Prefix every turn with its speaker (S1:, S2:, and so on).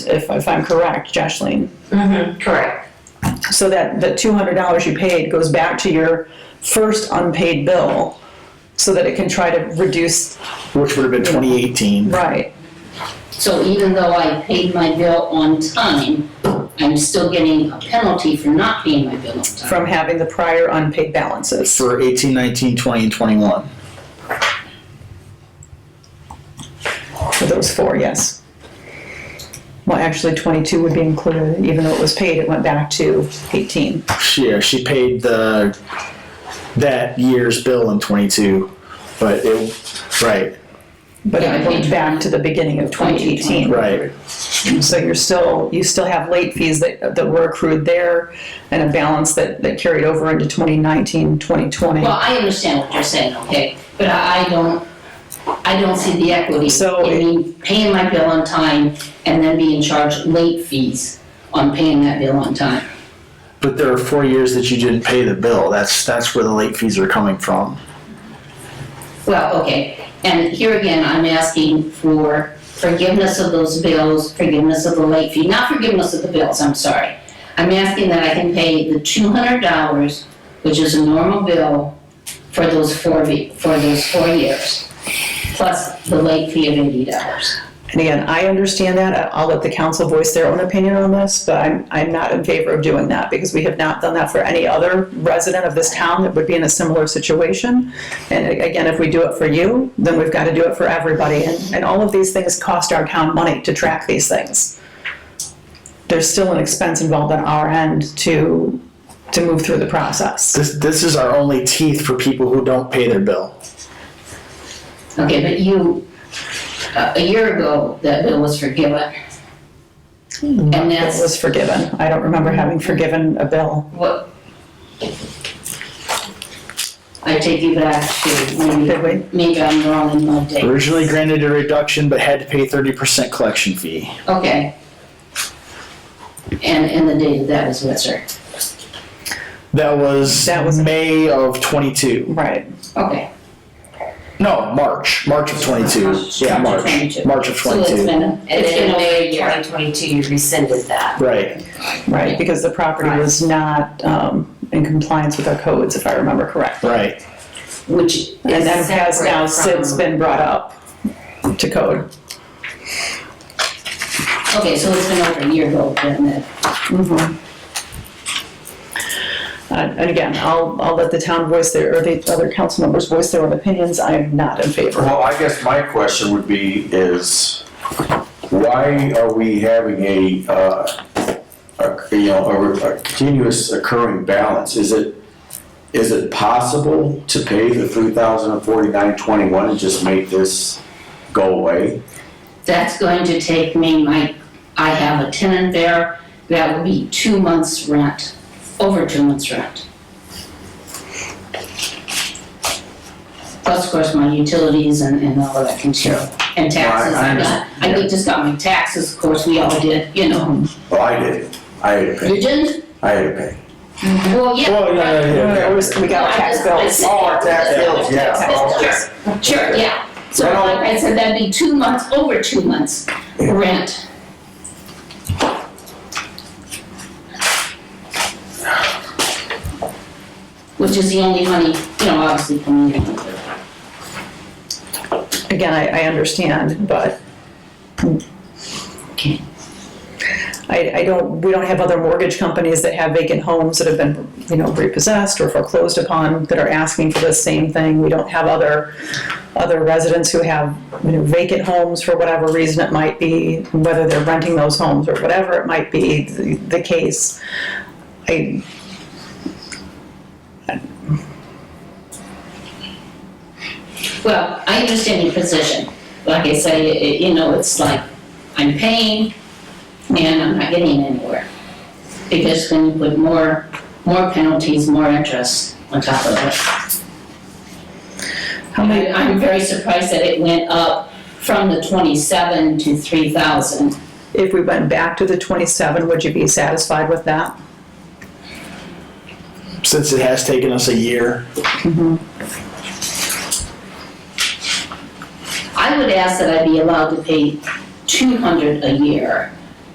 S1: if, if I'm correct, Jocelyn.
S2: Mm-hmm, correct.
S1: So that the two hundred dollars you paid goes back to your first unpaid bill, so that it can try to reduce,
S3: which would have been 2018.
S1: right,
S4: So even though I paid my bill on time, I'm still getting a penalty for not paying my bill on time.
S1: from having the prior unpaid balances.
S3: For 18, 19, 20, and 21.
S1: For those four, yes. Well, actually, twenty-two would be included, even though it was paid, it went back to eighteen.
S3: Yeah, she paid the that year's bill in 22, but it right,
S1: But
S4: Yeah,
S1: it
S4: I
S1: went
S4: paid
S1: back to the beginning of twenty eighteen.
S3: right.
S1: So you're still, you still have late fees that, that were accrued there and a balance that, that carried over into 2019, 2020.
S4: Well, I understand what you're saying, okay, but I I don't, I don't see the equity
S1: So-
S4: in me paying my bill on time and then being charged late fees on paying that bill on time.
S3: But there are four years that you didn't pay the bill. That's that's where the late fees are coming from.
S4: Well, okay, and here again, I'm asking for forgiveness of those bills, forgiveness of the late fee, not forgiveness of the bills, I'm sorry. I'm asking that I can pay the two hundred dollars, which is a normal bill, for those four, be- for those four years, plus the late fee of eighty dollars.
S1: And again, I understand that. I- I'll let the council voice their own opinion on this, but I'm, I'm not in favor of doing that because we have not done that for any other resident of this town that would be in a similar situation. And a- again, if we do it for you, then we've got to do it for everybody. And, and all of these things cost our town money to track these things. There's still an expense involved on our end to, to move through the process.
S3: This this is our only teeth for people who don't pay their bill.
S4: Okay, but you, uh, a a year ago, that bill was forgiven. And
S1: It
S4: that's
S1: was forgiven. I don't remember having forgiven a bill.
S4: what. I take you back to
S1: Did
S4: maybe,
S1: we?
S4: maybe I'm wrong in my date.
S3: Originally granted a reduction, but had to pay 30% collection fee.
S4: Okay. And, and the date of that was what, sir?
S3: That was
S1: That was-
S3: May of 22.
S1: Right.
S4: Okay.
S3: No, March. March of 22. Yeah, March.
S4: 22.
S3: March of
S4: So
S3: 22.
S4: it's been,
S2: And
S4: it's
S2: then
S4: been
S2: in
S4: over a
S2: May
S4: year.
S2: twenty twenty-two, you rescinded that.
S3: Right.
S1: Right, because the property was not um, in compliance with our codes, if I remember correctly.
S3: Right.
S4: Which,
S1: And that has now
S2: Separate
S1: since
S2: from-
S1: been brought up to code.
S4: okay, so it's been over a year ago then, that-
S1: Mhm. Uh, And again, I'll, I'll let the town voice their, or the other council members voice their own opinions. I am not in favor.
S5: Well, I guess my question would be is, why are we having a, uh, a, you know, a- a continuous occurring balance? Is it, is it possible to pay the three thousand and forty-nine twenty-one and just make this go away?
S4: That's going to take me, my, I have a tenant there, that would be two months' rent, over two months' rent. Plus, of course, my utilities and, and all of that can share, and taxes.
S5: Right, I
S4: got- I could- just got my taxes, of course, we all did, you know.
S5: Well, I did, I had to pay,
S4: You didn't?
S5: I had to pay.
S4: Well, yeah.
S3: Well, yeah, yeah, yeah.
S1: It was- We got tax bills.
S4: Oh,
S5: tax bills, yeah,
S4: Sure, sure, yeah. So
S5: Well-
S4: like I said, that'd be two months, over two months' rent. which is the only money, you know, obviously from the
S1: Again, I, I understand, but
S4: Okay.
S1: I, I don't, we don't have other mortgage companies that have vacant homes that have been, you know, repossessed or foreclosed upon that are asking for the same thing. We don't have other, other residents who have, you know, vacant homes for whatever reason it might be, whether they're renting those homes or whatever it might be the, the case. I,
S4: Well, I understand your position. Like I say, it- you know, it's like, I'm paying and I'm not getting anywhere. Because then you put more, more penalties, more interest on top of it.
S1: how many,
S4: I- I'm very surprised that it went up from the twenty-seven to three thousand.
S1: if we went back to the twenty-seven, would you be satisfied with that?
S3: Since it has taken us a year.
S4: I would ask that I be allowed to pay two hundred a year